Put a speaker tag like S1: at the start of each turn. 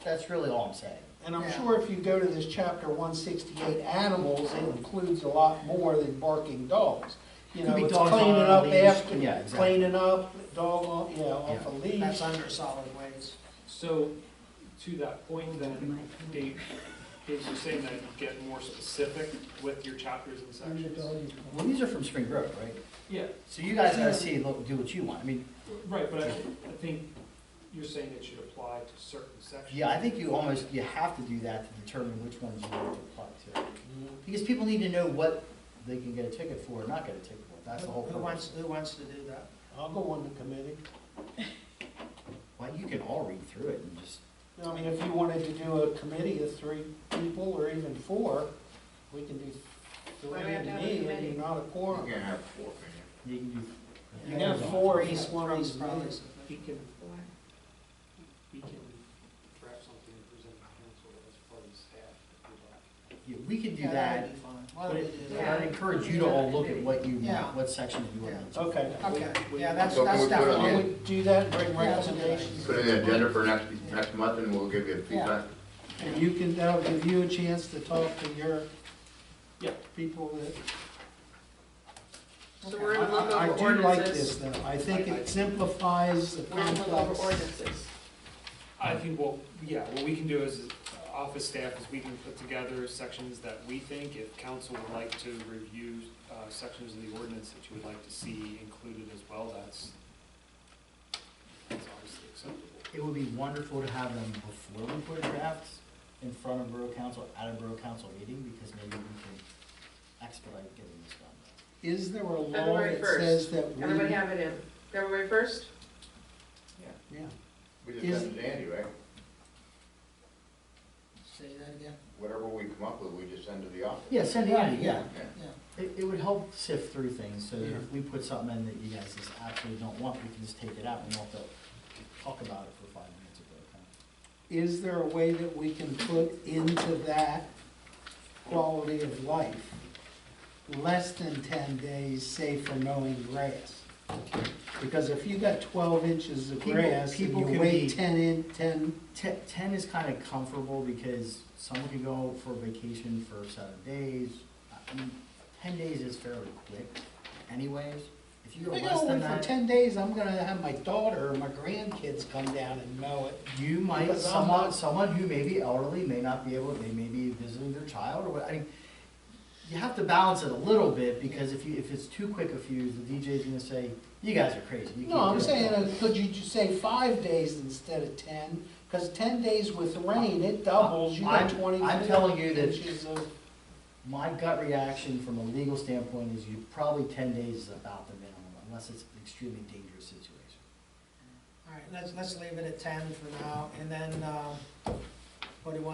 S1: That's really all I'm saying.
S2: And I'm
S3: Yeah.
S2: sure if you go to this chapter one sixty-eight, animals, it includes a lot more than barking dogs. You
S1: Could
S2: know,
S1: be
S2: it's
S1: dogs on
S2: cleaning
S1: a
S2: up
S1: leash, yeah,
S2: after,
S1: exactly.
S2: cleaning up, dog, on- you know, off a leash.
S3: That's under solid waste.
S4: So, to that point then, Dave, Dave was saying that you get more specific with your chapters and sections.
S1: Well, these are from Spring Grove, right?
S4: Yeah,
S1: So you guys gotta see, look, do what you want. I mean,
S4: right, but I, I think you're saying it should apply to certain sections.
S1: yeah, I think you almost, you have to do that to determine which ones you want to apply to. Because people need to know what they can get a ticket for or not get a ticket for. That's the whole
S3: Who
S1: purpose.
S3: wants, who wants to do that?
S2: I'll go on the committee.
S1: Well, you can all read through it and just,
S2: I mean, if you wanted to do a committee of three people or even four, we can do three
S5: Why do we have
S2: and
S5: to have a
S2: me, and
S5: committee?
S2: you're not a
S6: We're
S2: quorum.
S6: gonna have four, man.
S1: you can do.
S2: You can have four, each one of
S3: Three's
S2: these
S3: probably
S2: meetings.
S4: He
S3: sufficient.
S4: can, he can draft something and present to council as part of his staff. if you'd like.
S1: Yeah, We can do
S3: Yeah,
S1: that,
S3: that'd be fine. Why
S1: but
S3: don't we
S1: it-
S3: do
S1: but
S3: that?
S1: I'd encourage you to all look at what you
S3: Yeah.
S1: want, what section you want. to-
S2: Okay.
S3: Okay, yeah, that's,
S6: So
S3: that's
S6: can we put it on
S2: Why
S6: the-
S3: definitely.
S2: don't we do that and bring
S3: Yeah, let's do that.
S2: recommendations?
S6: Put it in the agenda for next, next month and we'll give you feedback.
S2: And you can, that'll give you a chance to talk to your
S4: Yeah.
S2: people that.
S5: So we're gonna look
S2: I- I-
S5: over
S2: I do like this
S5: ordinances.
S2: though, I think it simplifies the
S5: We're gonna look over
S2: complex.
S5: ordinances.
S4: I think, well, yeah, what we can do as uh, office staff is we can put together sections that we think, if council would like to review uh, sections of the ordinance that you would like to see included as well, that's, that's obviously acceptable.
S1: It would be wonderful to have them before we put drafts in front of Borough Council, at a Borough Council meeting, because maybe we can expedite getting this done.
S2: Is there a law
S5: February
S2: that
S5: first.
S2: says that we?
S5: Everybody have it in. February first?
S2: Yeah.
S6: We just send it to Andy, right?
S3: Say that again?
S6: Whatever we come up with, we just send to the office.
S1: Yeah, send it out, yeah.
S6: Yeah.
S3: Yeah.
S1: It, it would help sift through things, so that
S2: Yeah.
S1: if we put something in that you guys just absolutely don't want, we can just take it out and not have to talk about it for five minutes at Borough Council.
S2: Is there a way that we can put into that quality of life, less than ten days, say for mowing grass? Because if you got twelve inches of
S1: People-
S2: grass and
S1: people
S2: you
S1: can
S2: wait
S1: be-
S2: ten in, ten
S1: Ten, ten is kind of comfortable because someone can go for vacation for seven days. I mean, ten days is fairly quick anyways. If you go
S2: I
S1: less
S2: go
S1: than
S2: away for
S1: that,
S2: ten days, I'm gonna have my daughter or my grandkids come down and mow it.
S1: you might,
S2: because I'm
S1: someone,
S2: not-
S1: someone who may be elderly may not be able, they may be visiting their child or what, I mean, you have to balance it a little bit because if you, if it's too quick a fuse, the DJ's gonna say, you guys are crazy. you
S2: No,
S1: can't
S2: I'm
S1: do it."
S2: saying, uh, could you just say five days instead of ten? Cause ten days with rain, it doubles, you got
S1: I'm-
S2: twenty.
S1: I'm telling you that-
S2: inches of-
S1: My gut reaction from a legal standpoint is you, probably ten days is about the minimum, unless it's an extremely dangerous situation.
S3: All right, let's, let's leave it at ten for now, and then, um, what do you want